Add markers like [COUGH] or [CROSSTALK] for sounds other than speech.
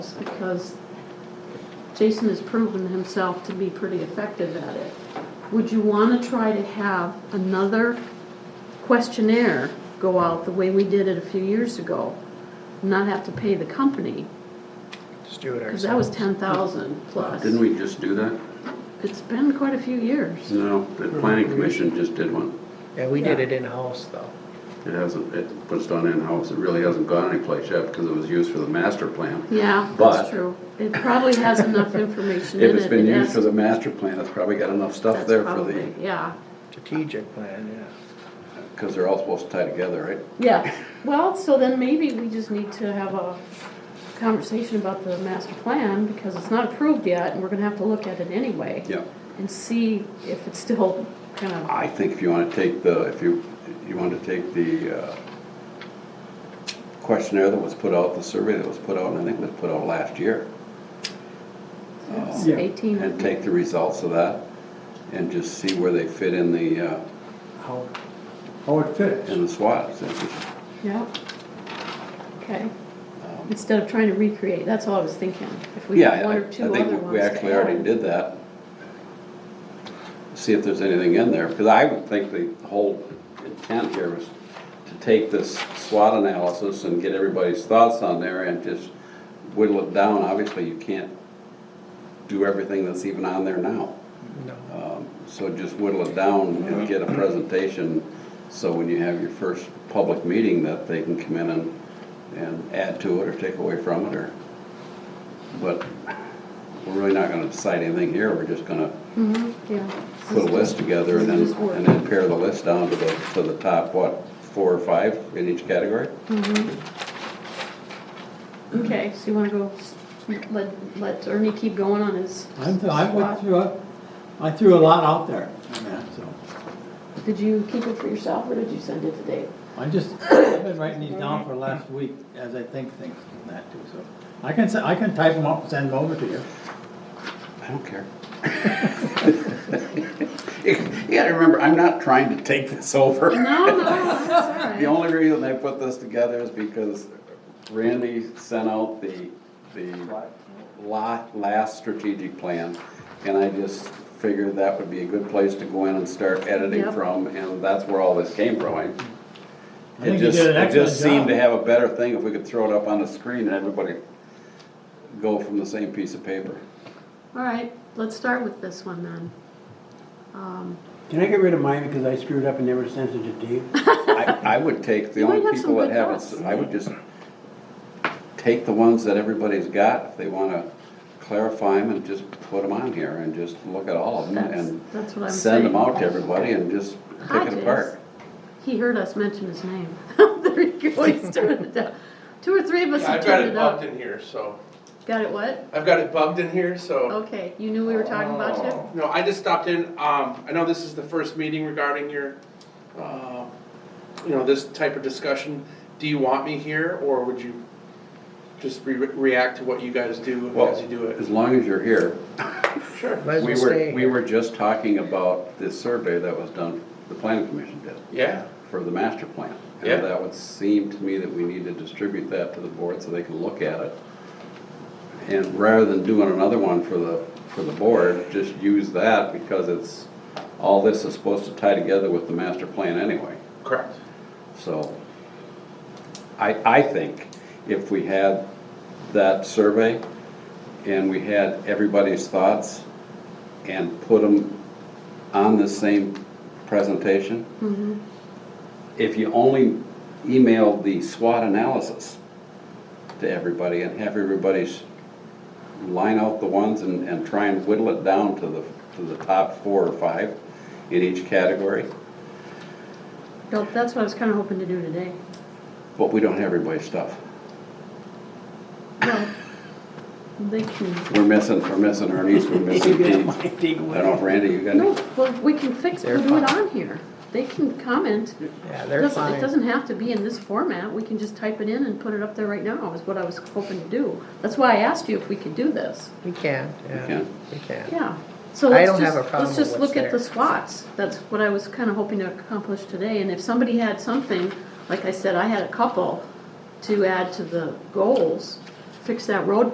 because Jason has proven himself to be pretty effective at it. Would you want to try to have another questionnaire go out the way we did it a few years ago? Not have to pay the company, Just do it because that was ten ourselves. thousand plus. Didn't we just do that? It's been quite a few years. No, the planning commission just did one. Yeah, we did Yeah. it in-house though. It hasn't, it was done in-house, it really hasn't gone anyplace yet because it was used for the master plan. Yeah, that's But- true. It probably has enough information in it. If it's been It used has- for the master plan, it's probably got enough stuff that's there for the, probably- Yeah. Strategic plan, because they're all supposed to tie together, right? Yeah, well, so then maybe we just need to have a conversation about the master plan, because it's not approved yet, and we're gonna have to look at it anyway. Yeah. And see if it's still kind of, I think if you want to take the, if you, you want to take the uh, questionnaire that was put out, the survey that was put out, and I think it was put out last year, Oh, it's Yeah. eighteen. and take the results of that and just see where they fit in the, uh, yeah. How, how it fits. in the SWOT. Yep. Um, Okay, instead of trying to recreate, that's all I was thinking, if we Yeah, had one I- or two I other ones think we to actually already add. did that. See if there's anything in there, because I would think the whole intent here was to take this SWOT analysis and get everybody's thoughts on there and just whittle it down. Obviously, you can't do everything that's even on there now. no. Um, So just whittle it down and get a presentation, so when you have your first public meeting, that they can come in and, and add to it or take away from it, or, but we're really not gonna decide anything here, we're just gonna Mhm, yeah. put a list together and then, and then pare the list down to the, to the top, what, four or five in each category? Okay, so you wanna go, s- let, let Ernie keep going on his, I'm, I went through, a- I threw a lot out there, on that, so. did you keep it for yourself, or did you send it to Dave? I just, I've been writing these down for the last week as I think things and that too, so. I can, se- I can type them up and send them over to you. I don't care. You gotta remember, I'm not trying to take this over. No, no, that's all right. The only reason I put this together is because Randy sent out the, the la last strategic plan. And I just figured that would be a good place to go in and start editing Yep. from, and that's where all this came from. I- I It think you just, did an it just excellent seemed to job. have a better thing if we could throw it up on the screen and everybody go from the same piece of paper. All right, let's start with this one then. Um, Can I get rid of mine because I screwed up and never sent it to Dave? [LAUGHS] I, I would take the You might only have some people that good haven't, thoughts. s- I would just take the ones that everybody's got, if they wanna clarify them and just put them on here and just look at all of them That's- and that's what I'm send them saying. out to everybody and just pick Hodges, it apart. He heard us mention his name. [LAUGHS] There you go, he's turning it down. Two or three of us Yeah, have I've got turned it it bugged up. in here, so, Got it what? I've got it bugged in here, so. Okay, you knew we were talking about you? No, I just stopped in, um, I know this is the first meeting regarding your, uh, you know, this type of discussion. Do you want me here, or would you just re- react to what you guys do Well, as you do it? as long as you're here, Sure, Might as we well were, stay we here. were just talking about this survey that was done, the planning commission did, yeah, for the master plan. And Yeah. That would seem to me that we need to distribute that to the board so they can look at it. And rather than doing another one for the, for the board, just use that because it's, all this is supposed to tie together with the master plan anyway. correct. So I, I think if we had that survey and we had everybody's thoughts and put them on the same presentation, if you only emailed the SWOT analysis to everybody and have everybody's line out the ones and, and try and whittle it down to the, to the top four or five in each category, No, That's what I was kinda hoping to do today. but we don't have everybody's stuff. Well, They can, We're missing, we're missing Ernie's, we're missing Dean. I don't know if Randy, you got no, any? well, we can fix, They're we'll do it fine. on here. They can comment. Yeah, they're Doesn't- It fine. doesn't have to be in this format, we can just type it in and put it up there right now, is what I was hoping to do. That's why I asked you if we could do this. We can, yeah, can. we can. Yeah, so I let's don't have just, a problem let's with just what's look at the there. SWATs. That's what I was kind of hoping to accomplish today, and if somebody had something, like I said, I had a couple to add to the goals, fix that road